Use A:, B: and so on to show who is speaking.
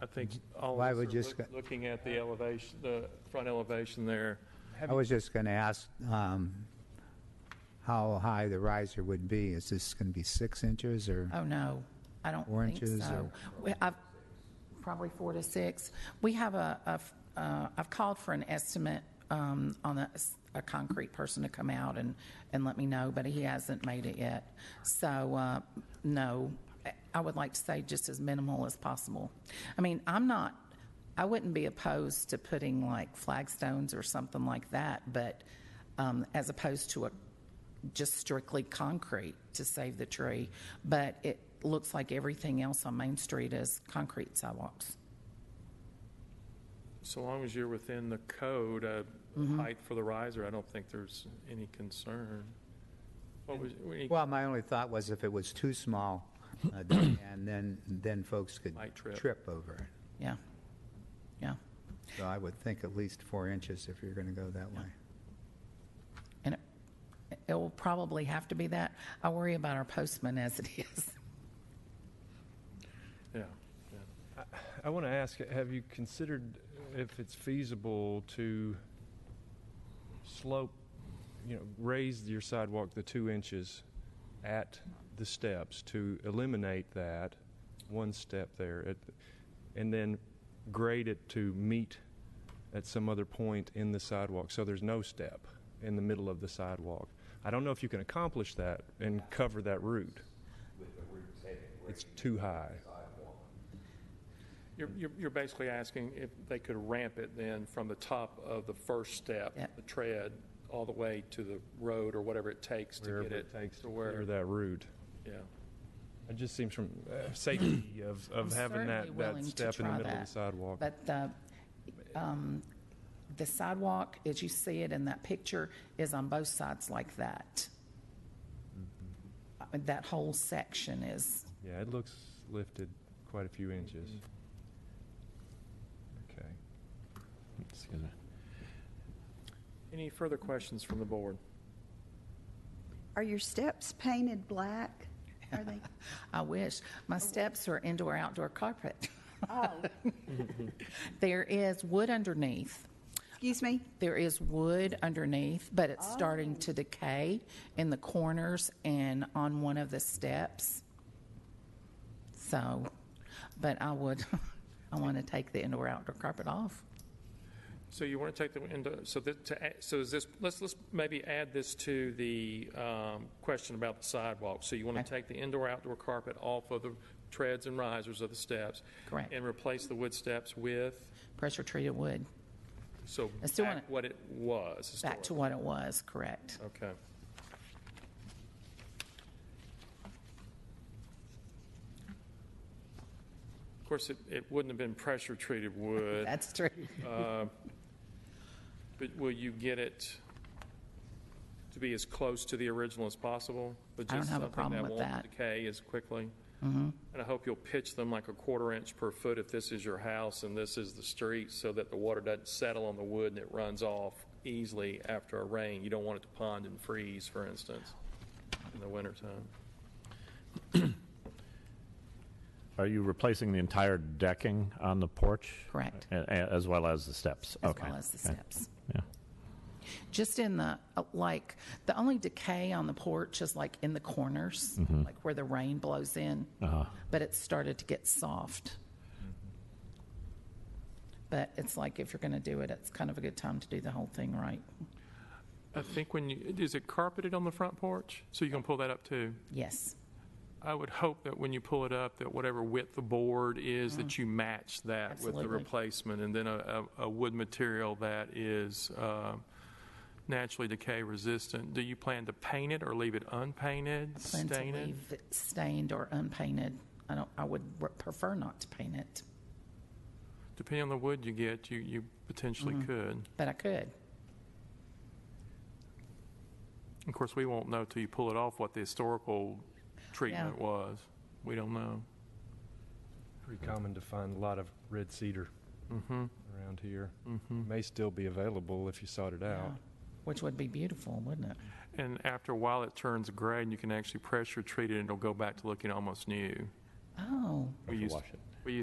A: I think all
B: Well, I
A: of us
B: would
A: are
B: just
A: look-
B: go-
A: looking at the elevation, the front elevation there.
B: I was just going to ask um, how high the riser would be. Is this going to be six inches or?
C: Oh, no, I don't
B: Four
C: think
B: inches
C: so. We- I've, probably four to six. We have a, a f- uh, I've called for an estimate um, on a, s- a concrete person to come out and, and let me know, but he hasn't made it yet. So, uh, no, I- I would like to say just as minimal as possible. I mean, I'm not, I wouldn't be opposed to putting like flagstones or something like that, but um, as opposed to a just strictly concrete to save the tree, but it looks like everything else on Main Street is concrete sidewalks.
A: So long as you're within the code, uh,
D: Mm-hmm.
A: height for the riser, I don't think there's any concern. What was, we
B: Well, my only thought was if it was too small, uh, then- and then, then folks could
A: Might trip.
B: trip over it.
C: Yeah. Yeah.
B: So I would think at least four inches if you're going to go that way.
C: And it, it will probably have to be that. I worry about our postman as it is.
A: yeah, yeah.
D: I want to ask, have you considered if it's feasible to slope, you know, raise your sidewalk the two inches at the steps to eliminate that one step there, at, and then grade it to meet at some other point in the sidewalk, so there's no step in the middle of the sidewalk. I don't know if you can accomplish that and cover that route. It's too high.
A: You're, you're- you're basically asking if they could ramp it then from the top of the first step,
C: Yep.
A: the tread, all the way to the road or whatever it takes to
D: wherever
A: get
D: it takes
A: to
D: to
A: where,
D: clear that route.
A: yeah.
D: It just seems from uh, safety of,
C: I'm
D: of having
C: certainly
D: that, that
C: willing to
D: step in the
C: try
D: middle of the
C: that,
D: sidewalk.
C: But the, um, the sidewalk, as you see it in that picture, is on both sides like that. Uh, That whole section is
D: Yeah, it looks lifted quite a few inches. Okay.
E: Excuse me.
A: Any further questions from the board?
F: Are your steps painted black? Are they?
C: I wish. My steps are indoor outdoor carpet.
F: Oh,
C: There is wood underneath.
F: excuse me?
C: There is wood underneath, but it's starting to decay in the corners and on one of the steps. So, but I would, I want to take the indoor outdoor carpet off.
A: So you want to take the, into- so that, to, add- so is this, let's, let's maybe add this to the um, question about the sidewalk. So you want to
C: Okay.
A: take the indoor-outdoor carpet off of the treads and risers of the steps?
C: Correct.
A: And replace the wood steps with,
C: Pressure treated wood,
A: so
C: I still
A: back
C: wanna-
A: what it was.
C: back to
A: historically.
C: what it was, correct?
A: Okay. Of course, it, it wouldn't have been pressure-treated wood.
C: That's true.
A: But will you get it to be as close to the original as possible?
C: I don't have a problem with
A: But just something that won't
C: that. Mm-hmm.
A: decay as quickly? And I hope you'll pitch them like a quarter inch per foot if this is your house and this is the street, so that the water doesn't settle on the wood and it runs off easily after a rain. You don't want it to pond and freeze, for instance, in the wintertime.
E: Are you replacing the entire decking on the porch?
C: Correct.
E: A- a- As well as the steps?
C: As
E: Okay.
C: well as the
E: Okay.
C: steps.
E: Yeah.
C: Just in the, uh, like, the only decay on the porch is like in the corners, like where the rain blows in. But it started to get soft. But it's like if you're going to do it, it's kind of a good time to do the whole thing right.
A: I think when you, is it carpeted on the front porch? So you can pull that up too?
C: Yes.
A: I would hope that when you pull it up, that whatever width the board is, that you match that with the
C: Mm. Absolutely.
A: replacement, and then a, a a wood material that is um, naturally decay resistant. Do you plan to paint it or leave it unpainted,
C: Plan to
A: stain it?
C: leave it Stained or unpainted. I don't, I would r- prefer not to paint it,
A: Depending on the wood you get, you, you potentially
C: Mm-hmm.
A: could.
C: but I could.
A: Of course, we won't know till you pull it off what the historical treatment was. We don't know.
D: Pretty common to find a lot of red cedar Mm-hmm. around here. May still be available if you sought it
C: Yeah.
D: out.
C: Which would be beautiful, wouldn't it?
A: And after a while, it turns gray, and you can actually pressure treat it, and it'll go back to looking almost new.
C: Oh,
A: We used,
E: wash it.